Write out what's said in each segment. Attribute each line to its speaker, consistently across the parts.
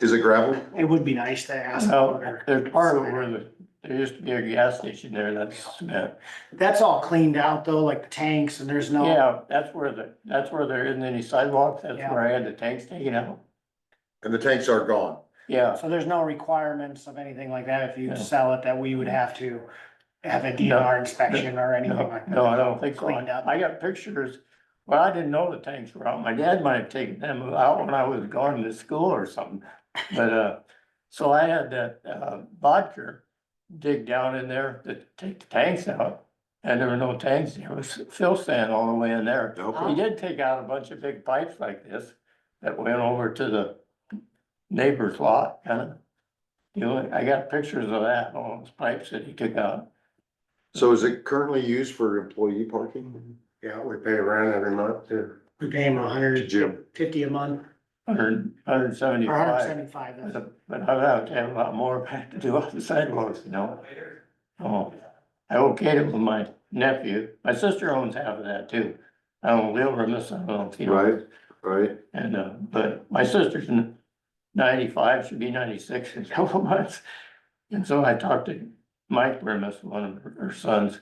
Speaker 1: Is it gravel?
Speaker 2: It would be nice to ask.
Speaker 3: No,
Speaker 2: for-
Speaker 3: there's part of where the, there used to be a gas station there, that's, uh,
Speaker 2: That's all cleaned out though, like the tanks and there's no,
Speaker 3: yeah, that's where the, that's where there isn't any sidewalks, that's where I had the tanks taken out.
Speaker 1: And the tanks are gone.
Speaker 3: Yeah,
Speaker 2: so there's no requirements of anything like that if you
Speaker 3: No.
Speaker 2: sell it that we would have to have a DNR inspection or anything
Speaker 3: no,
Speaker 2: like that.
Speaker 3: no, I don't think so.
Speaker 2: Cleaned up.
Speaker 3: I got pictures, well, I didn't know the tanks were out, my dad might have taken them out when I was going to school or something. But, uh, so I had that, uh, vodka dig down in there to take the tanks out, and there were no tanks, there was fill sand all the way in there.
Speaker 1: Nope.
Speaker 3: He did take out a bunch of big pipes like this that went over to the neighbor's lot, kind of. You know, I got pictures of that, all those pipes that he took out.
Speaker 1: So is it currently used for employee parking?
Speaker 4: Yeah, we pay rent every month too.
Speaker 2: We pay him a
Speaker 1: To
Speaker 2: hundred
Speaker 1: Jim?
Speaker 2: fifty a month
Speaker 3: Hundred,
Speaker 2: or a
Speaker 3: hundred
Speaker 2: hundred
Speaker 3: seventy-five,
Speaker 2: seventy-five. that's-
Speaker 3: but I'd have to have a lot more back to do off the sidewalks, you know? Oh, I okayed it with my nephew, my sister owns half of that too. I don't live on this, I don't, you know?
Speaker 1: Right, right.
Speaker 3: And, uh, but my sister's n- ninety-five, she'll be ninety-six in a couple months. And so I talked to Mike Remus, one of her her sons.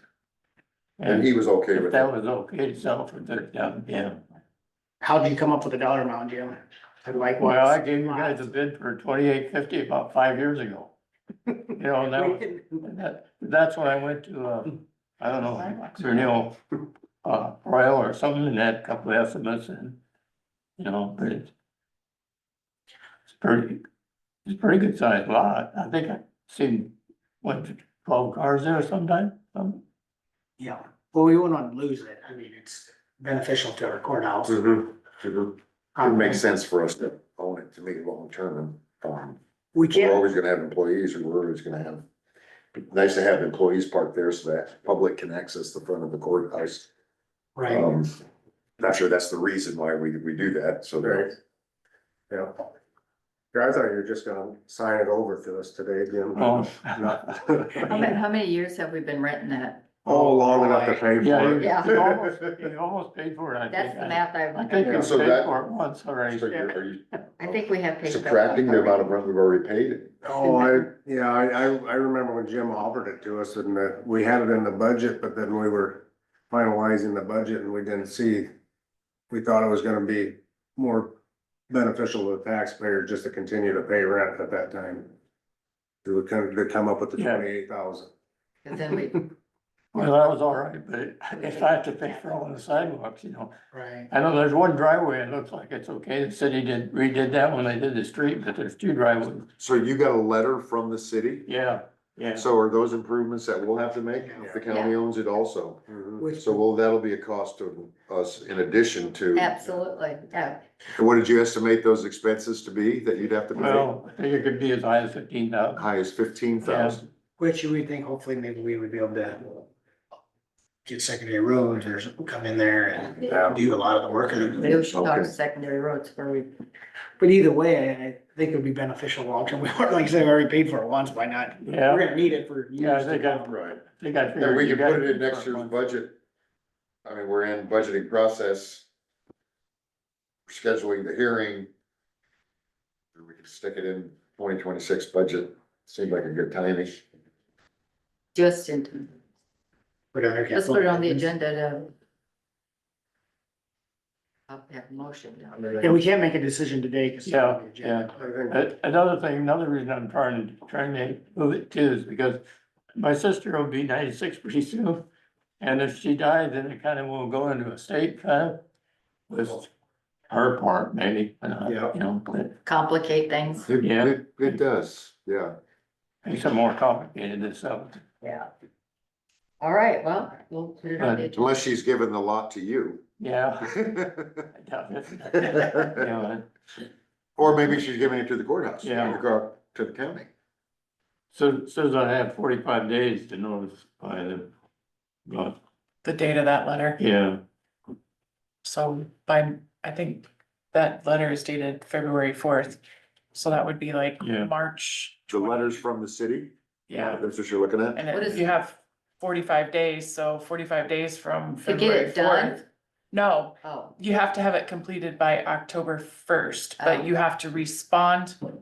Speaker 1: And
Speaker 3: And
Speaker 1: he was okay
Speaker 3: if
Speaker 1: with
Speaker 3: that
Speaker 1: that.
Speaker 3: was okay to sell for thirty thousand, yeah.
Speaker 2: How did you come up with a dollar amount, Jim? And
Speaker 3: Well, I
Speaker 2: likewise.
Speaker 3: gave you guys a bid for twenty-eight fifty about five years ago. You know, and that was And That, that's when I went to, uh, I don't know, Renewal, uh, Royal or something, and had a couple of estimates and, you know, but it's. It's pretty, it's a pretty good sized lot, I think I've seen, what, twelve cars there sometime, um,
Speaker 2: Yeah, well, we wouldn't want to lose it. I mean, it's beneficial to our courthouse.
Speaker 1: Mhm,
Speaker 4: Mm-hmm.
Speaker 1: mhm. It makes sense for us to own it, to make it long term. Um,
Speaker 2: We
Speaker 1: We're
Speaker 2: can't,
Speaker 1: always gonna have employees and we're always gonna have, nice to have employees parked there so that public can access the front of the courthouse.
Speaker 2: right,
Speaker 1: Um, not sure that's the reason why we, we do that, so.
Speaker 4: Right. Yeah. Yeah, I thought you were just gonna sign it over to us today, Jim.
Speaker 3: oh.
Speaker 5: How
Speaker 1: Oh,
Speaker 5: many, how many years have we been renting that?
Speaker 4: Oh, long enough to pay
Speaker 3: Yeah,
Speaker 4: for
Speaker 3: you-
Speaker 4: it.
Speaker 5: Yeah.
Speaker 3: you almost, you almost paid for it, I
Speaker 5: That's
Speaker 3: think,
Speaker 5: the
Speaker 3: I
Speaker 5: math I've
Speaker 3: I
Speaker 5: done.
Speaker 3: think you
Speaker 1: Yeah,
Speaker 3: paid
Speaker 1: so that-
Speaker 3: for it once already,
Speaker 1: So you're- are you
Speaker 5: I think we have paid. for it.
Speaker 1: subtracting the amount of rent we've already paid?
Speaker 4: Oh, I, yeah, I, I, I remember when Jim offered it to us and that we had it in the budget, but then we were finalizing the budget and we didn't see. We thought it was gonna be more beneficial to the taxpayer just to continue to pay rent at that time. To come, to come up with the
Speaker 3: Yeah.
Speaker 4: twenty-eight thousand.
Speaker 5: Cause then we,
Speaker 3: well, that was all right, but it- if I had to pay for all the sidewalks, you know.
Speaker 2: right.
Speaker 3: I know there's one driveway, it looks like it's okay, the city did, redid that when they did the street, but there's two driveways.
Speaker 1: So you got a letter from the city?
Speaker 3: Yeah, yeah.
Speaker 1: So are those improvements that we'll have to make? if The county owns it also.
Speaker 4: Mm-hmm.
Speaker 2: Which,
Speaker 1: So well, that'll be a cost to us in addition to.
Speaker 5: absolutely, yeah.
Speaker 1: And What did you estimate those expenses to be that you'd have to pay?
Speaker 3: Well, I think it could be as high as fifteen thousand.
Speaker 1: High as fifteen thousand.
Speaker 2: which you would think hopefully maybe we would be able to get secondary roads or something, come in there and do a lot of the work.
Speaker 5: We should talk
Speaker 1: Okay.
Speaker 5: secondary roads where we,
Speaker 2: But either way, I think it would be beneficial long term. We weren't, like I said, we already paid for it once, why not? We're
Speaker 3: Yeah,
Speaker 2: gonna need it for
Speaker 3: yeah, I
Speaker 2: years.
Speaker 3: think I, I
Speaker 1: Right.
Speaker 3: think I figured.
Speaker 1: And we
Speaker 3: you
Speaker 1: can put it
Speaker 3: guys-
Speaker 1: in next year's budget. I mean, we're in budgeting process. Scheduling the hearing. We can stick it in twenty twenty-six budget. Seemed like a good timing.
Speaker 5: just in,
Speaker 2: Put it on our capital.
Speaker 5: let's put it on the agenda to. I'll have a motion down.
Speaker 2: Yeah, we can't make a decision today because.
Speaker 3: Yeah, yeah.
Speaker 4: I think
Speaker 3: A- Another thing, another reason I'm trying to, trying to move it too is because my sister will be ninety-six pretty soon. And if she died, then it kind of will go into a state kind of with her part maybe, but not,
Speaker 4: Yeah.
Speaker 3: you know, but.
Speaker 5: Complicate things.
Speaker 1: It-
Speaker 3: Yeah.
Speaker 1: It, it does, yeah.
Speaker 3: Makes it more complicated than something.
Speaker 5: Yeah. All right, well, we'll put it on the agenda.
Speaker 1: Uh, Unless she's given the lot to you.
Speaker 3: Yeah. I doubt it. Yeah,
Speaker 1: Or maybe she's giving it to the courthouse.
Speaker 3: Yeah.
Speaker 1: To go out to the county.
Speaker 3: So, says I have forty-five days to notify them. But,
Speaker 6: the date of that letter.
Speaker 3: yeah,
Speaker 6: So by, I think that letter is dated February fourth. So that would be like
Speaker 3: Yeah.
Speaker 6: March,
Speaker 1: The letters from the city?
Speaker 6: yeah.
Speaker 1: That's what you're looking at?
Speaker 6: And
Speaker 5: What
Speaker 6: if
Speaker 5: is-
Speaker 6: you have forty-five days, so forty-five days from
Speaker 5: To get
Speaker 6: February
Speaker 5: it done,
Speaker 6: fourth. No,
Speaker 5: oh.
Speaker 6: you have to have it completed by October first,
Speaker 5: Oh.
Speaker 6: but you have to respond